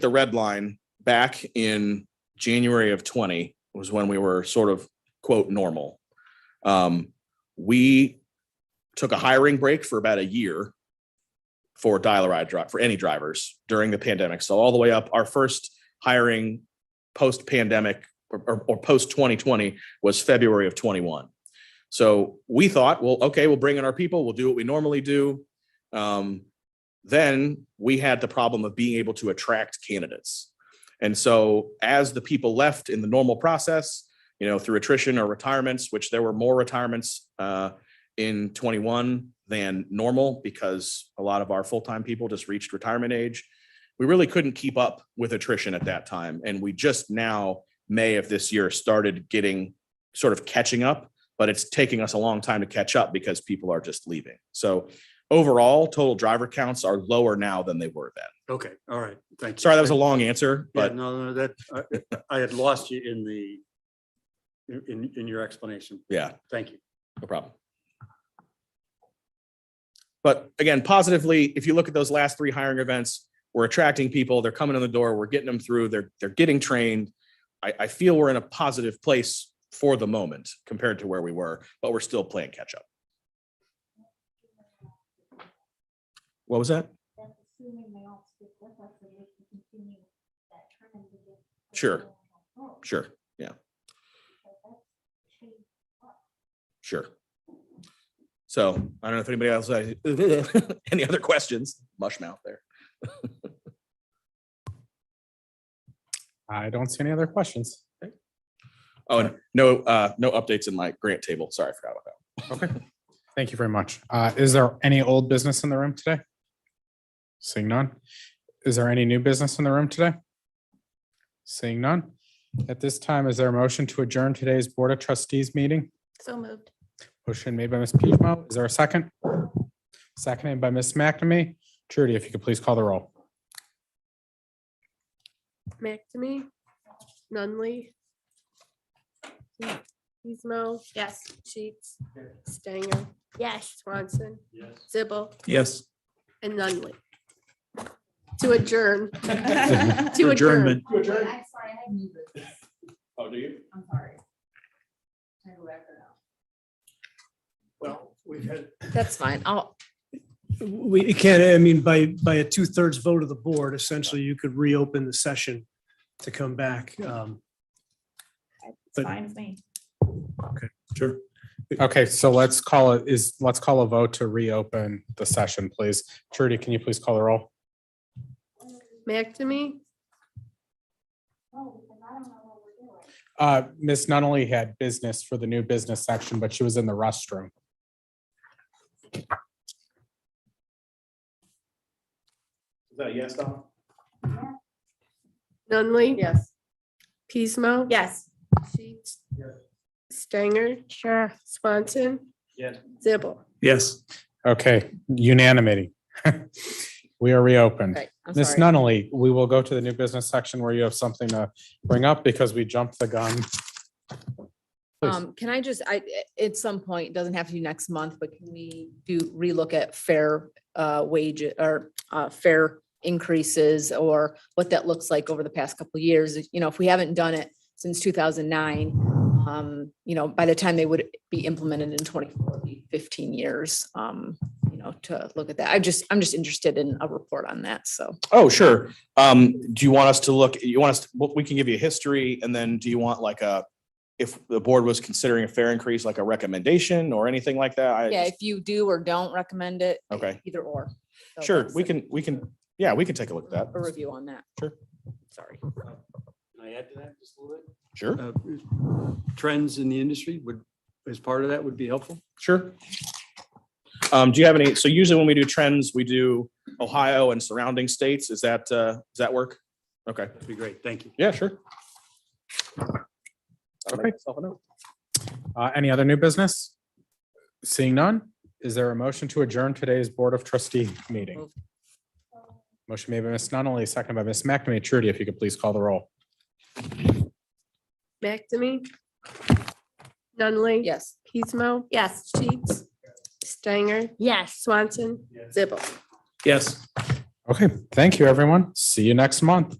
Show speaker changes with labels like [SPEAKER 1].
[SPEAKER 1] the red line back in January of 20 was when we were sort of quote normal. Um, we took a hiring break for about a year for dial-a-ride drive for any drivers during the pandemic. So all the way up, our first hiring post-pandemic or, or, or post 2020 was February of 21. So we thought, well, okay, we'll bring in our people. We'll do what we normally do. Um, then we had the problem of being able to attract candidates. And so as the people left in the normal process, you know, through attrition or retirements, which there were more retirements uh, in 21 than normal because a lot of our full-time people just reached retirement age. We really couldn't keep up with attrition at that time. And we just now, May of this year, started getting sort of catching up, but it's taking us a long time to catch up because people are just leaving. So overall total driver counts are lower now than they were then.
[SPEAKER 2] Okay, all right, thank you.
[SPEAKER 1] Sorry, that was a long answer,
[SPEAKER 2] Yeah,
[SPEAKER 1] but
[SPEAKER 2] no, no, that, I- I had lost you in the, in- in, in your explanation.
[SPEAKER 1] yeah,
[SPEAKER 2] Thank you.
[SPEAKER 1] no problem. But again, positively, if you look at those last three hiring events, we're attracting people, they're coming in the door, we're getting them through, they're, they're getting trained. I, I feel we're in a positive place for the moment compared to where we were, but we're still playing catch up. What was that?
[SPEAKER 3] That's assuming they all stick with us and we can continue that trend. to get-
[SPEAKER 1] Sure. Sure,
[SPEAKER 3] So that's changed.
[SPEAKER 1] sure. So I don't know if anybody else, has any other questions? Mush mouth there.
[SPEAKER 4] I don't see any other questions.
[SPEAKER 1] Oh, and no, uh, no updates in my grant table. Sorry, I forgot about that.
[SPEAKER 4] Okay. Thank you very much. Uh, Is there any old business in the room today? Seeing none. Is there any new business in the room today? Seeing none. At this time, is there a motion to adjourn today's Board of Trustees meeting?
[SPEAKER 5] So moved.
[SPEAKER 4] Motion made by Ms. Pishmo. Is there a second? Seconded by Ms. McNamee. Trudy, if you could please call the roll.
[SPEAKER 6] McNamee, Nunley. Pismo,
[SPEAKER 5] Yes.
[SPEAKER 6] Sheets, Stanger,
[SPEAKER 5] Yes.
[SPEAKER 6] Swanson,
[SPEAKER 2] Yes.
[SPEAKER 6] Zibble,
[SPEAKER 1] Yes.
[SPEAKER 6] and Nunley. To adjourn, to adjourn.
[SPEAKER 4] Adjournment.
[SPEAKER 3] Oh, wait, I'm sorry, I had new business.
[SPEAKER 1] Oh, do you?
[SPEAKER 3] I'm sorry. I left it out.
[SPEAKER 2] Well, we've had,
[SPEAKER 5] That's fine. I'll,
[SPEAKER 7] We it can't, I mean, by, by a two-thirds vote of the board, essentially, you could reopen the session to come back. Um,
[SPEAKER 5] it's
[SPEAKER 7] But-
[SPEAKER 5] fine with me.
[SPEAKER 7] Sure.
[SPEAKER 4] Okay, so let's call it is, let's call a vote to reopen the session, please. Trudy, can you please call the roll?
[SPEAKER 6] McNamee,
[SPEAKER 3] Oh, because I don't know what we're doing.
[SPEAKER 4] Uh, Ms. Nunley had business for the new business section, but she was in the restroom.
[SPEAKER 1] Is that a yes, Don?
[SPEAKER 6] Nunley,
[SPEAKER 5] Yes.
[SPEAKER 6] Pismo.
[SPEAKER 5] Yes.
[SPEAKER 6] Sheets. Stanger. Sure. Swanson.
[SPEAKER 2] Yes.
[SPEAKER 6] Zibble.
[SPEAKER 7] Yes.
[SPEAKER 4] Okay, unanimity. We are reopened.
[SPEAKER 5] Right. I'm
[SPEAKER 4] Ms.
[SPEAKER 5] sorry.
[SPEAKER 4] Nunley, we will go to the new business section where you have something to bring up because we jumped the gun. please.
[SPEAKER 8] Um, can I just, I, at some point, it doesn't have to be next month, but can we do relook at fair uh wage or uh fair increases or what that looks like over the past couple of years? You know, if we haven't done it since two thousand nine, um, you know, by the time they would be implemented in 2015 years, um, you know, to look at that. I just, I'm just interested in a report on that, so.
[SPEAKER 1] Oh, sure. Um, do you want us to look, you want us, to- well, we can give you a history and then do you want like a, if the board was considering a fair increase, like a recommendation or anything like that? I
[SPEAKER 8] Yeah,
[SPEAKER 1] just-
[SPEAKER 8] if you do or don't recommend it,
[SPEAKER 1] Okay,
[SPEAKER 8] either or. So
[SPEAKER 1] sure.
[SPEAKER 8] that's
[SPEAKER 1] We
[SPEAKER 8] a-
[SPEAKER 1] can, we can, yeah, we can take a look at that.
[SPEAKER 8] A review on that.
[SPEAKER 1] Sure.
[SPEAKER 8] Sorry.
[SPEAKER 2] can I add to that just a little bit?
[SPEAKER 1] Sure,
[SPEAKER 2] Uh, Trends in the industry would, as part of that would be helpful.
[SPEAKER 1] sure. Um, do you have any, so usually when we do trends, we do Ohio and surrounding states. Is that, uh, does that work? Okay,
[SPEAKER 2] That'd be great, thank you.
[SPEAKER 1] yeah, sure.
[SPEAKER 4] Okay. Uh, Any other new business? Seeing none, is there a motion to adjourn today's Board of Trustee meeting?
[SPEAKER 8] Moved.
[SPEAKER 4] Motion made by Ms. Nunley, seconded by Ms. McNamee. Trudy, if you could please call the roll.
[SPEAKER 6] McNamee. Nunley.
[SPEAKER 8] Yes.
[SPEAKER 6] Pismo,
[SPEAKER 5] Yes.
[SPEAKER 6] Sheets, Stanger,
[SPEAKER 5] Yes.
[SPEAKER 6] Swanson, Zibble.
[SPEAKER 7] Yes.
[SPEAKER 4] Okay, thank you, everyone. See you next month.